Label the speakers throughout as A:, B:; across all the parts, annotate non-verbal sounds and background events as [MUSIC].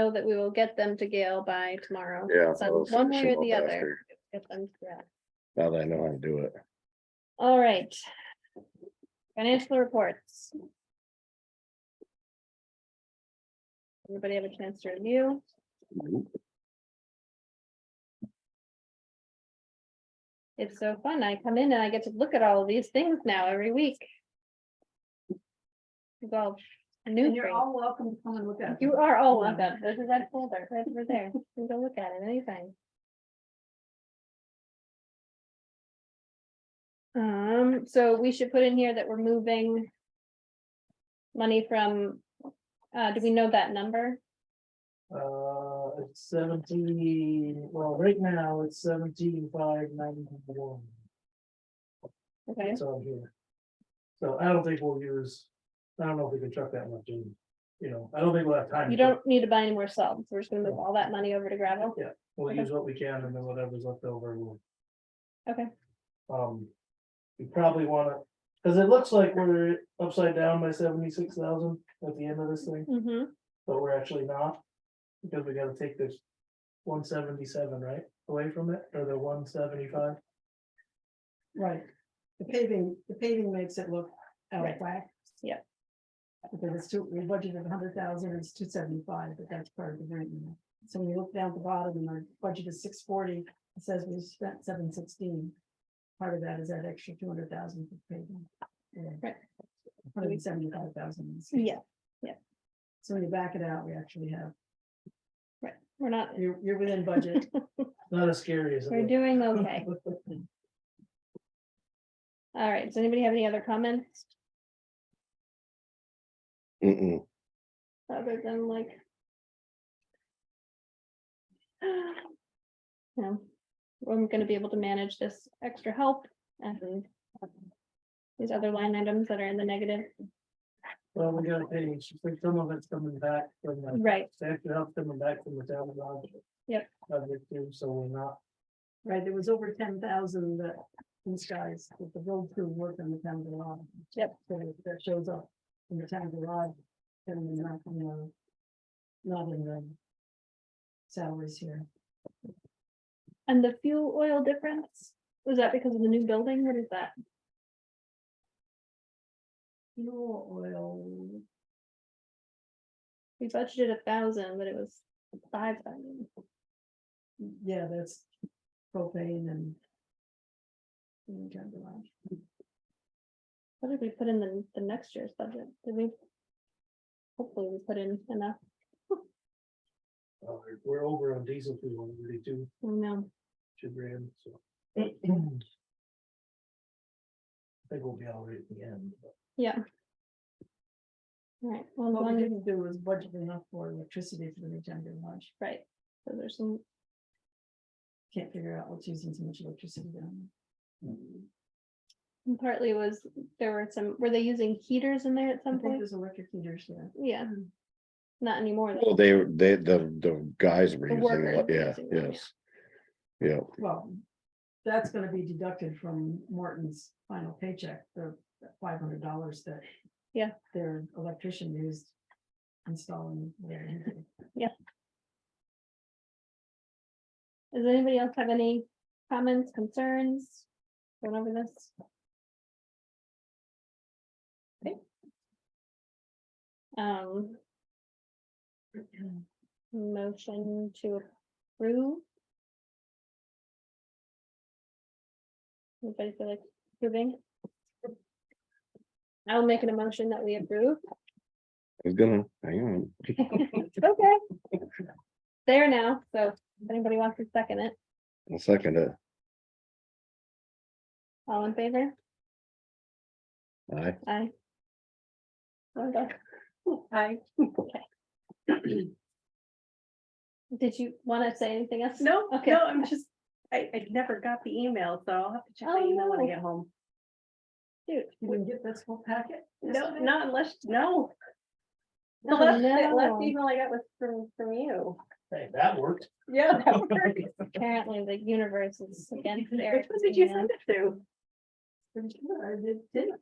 A: know that we will get them to Gail by tomorrow.
B: Yeah,
A: So
B: those
A: One way or
B: simple
A: the other.
B: bastard.
A: get them to that.
B: Now that I know how to do it.
A: All right. Financial reports. Everybody have a chance to review? It's so fun. I come in and I get to look at all of these things now every week. It's all new.
C: And you're
A: for me.
C: all welcome to come and look at. it.
A: You are all welcome. There's a red folder right over there. You can go look at it anytime. Um, so we should put in here that we're moving money from, uh, do we know that number?
D: Uh, it's seventeen, well, right now it's seventeen five ninety-one,
A: Okay,
D: it's on here. So I don't think we'll use, I don't know if we can chuck that much in, you know, I don't think we'll have time.
A: you
D: to-
A: don't need to buy any more salt. We're just gonna move all that money over to gravel.
D: We'll use what we can and then whatever's left over, we'll.
A: Okay.
D: Um, we probably wanna, cause it looks like we're upside down by seventy-six thousand at the end of this thing,
A: Mm-hmm.
D: but we're actually not. Because we gotta take this one seventy-seven, right, away from it, or the one seventy-five?
C: Right. The paving, the paving makes it look out of
A: Right.
C: whack.
A: Yeah.
C: Because it's two, we budgeted a hundred thousand, it's two seventy-five, but that's part of the grant. you know. So when you look down at the bottom and our budget is six forty, it says we spent seven sixteen. Part of that is that extra two hundred thousand for paving.
A: Right.
C: Hundred seventy-five thousand.
A: Yeah,
C: So when you back it out, we actually have,
A: we're not,
C: you're, you're within budget.
D: Not as scary as. it
A: we're
D: looks.
A: doing okay. All right, does anybody have any other comments
B: Mm-mm.
A: other than like? [SIGHS] No, I'm gonna be able to manage this extra help and these other line items that are in the negative.
D: [LAUGHS] Well, we gotta pay, each- like, some of it's coming back from the,
A: Right,
D: they have to help coming back from the town. garage.
A: Yep.
D: Project too, so we're not,
C: Right, there was over ten thousand that these guys, that the road crew worked on the town garage.
A: Yep.
C: So That shows up in the town garage. And not, you know. Not in the. Salaries here.
A: and the fuel oil difference, was that because of the new building? What is that?
C: Fuel oil.
A: We budgeted a thousand, but it was five thousand.
C: Yeah, that's propane and. in the town garage.
A: What did we put in the, the next year's budget? Did we? Hopefully we put in enough,
D: uh, we're over on diesel fuel, we do
A: no,
D: two grand, so. I
A: Mm.
D: think we'll be all right at the end. but-
A: yeah. All right, well, as
C: What
A: long
C: we
A: as-
C: didn't do was budget enough for electricity for the town garage.
A: right, so there's some
C: Can't figure out what's using so much electricity down. there.
A: And Partly was, there were some, were they using heaters in there at
C: I
A: some
C: think Hmm.
A: point?
C: there's electric heaters there.
A: Yeah, not anymore. though.
B: Well, they, they, the, the guys were
A: The
B: using,
A: workers
B: it,
A: were
B: yeah,
A: using it, yeah.
B: yes. Yeah,
C: Well, that's gonna be deducted from Morton's final paycheck, the five hundred dollars that.
A: Yeah.
C: Their electrician used installing. their heater.
A: Does anybody else have any comments, concerns? Going over this? Okay. Um. Motion to approve. Anybody feel like approving? I'll make an motion that we approve.
B: I was gonna, hang on.
A: Okay. There now, so if anybody wants to second it,
B: I'll second uh, it.
A: all in favor?
B: Aye.
A: Aye. Linda?
E: Hi,
A: Did you want to say anything else?
E: no,
A: Okay.
E: no, I'm just, I, I never got the email, so I'll have to check
A: Oh,
E: my email when
A: no.
E: I get home.
C: You didn't get this whole packet?
E: No,
C: yesterday?
E: not unless, no. The
A: Oh,
E: last, the
A: no.
E: last email I got was from, from you.
D: Hey, that worked.
E: Yeah. [LAUGHS] that worked.
A: Apparently the universe is against
E: Which
A: Eric.
E: one did you send it to?
C: Pretty sure I did, didn't.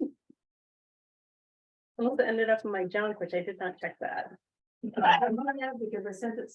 E: Unless it ended up in my junk, which I did not check that.
C: I'm gonna have, because I sent it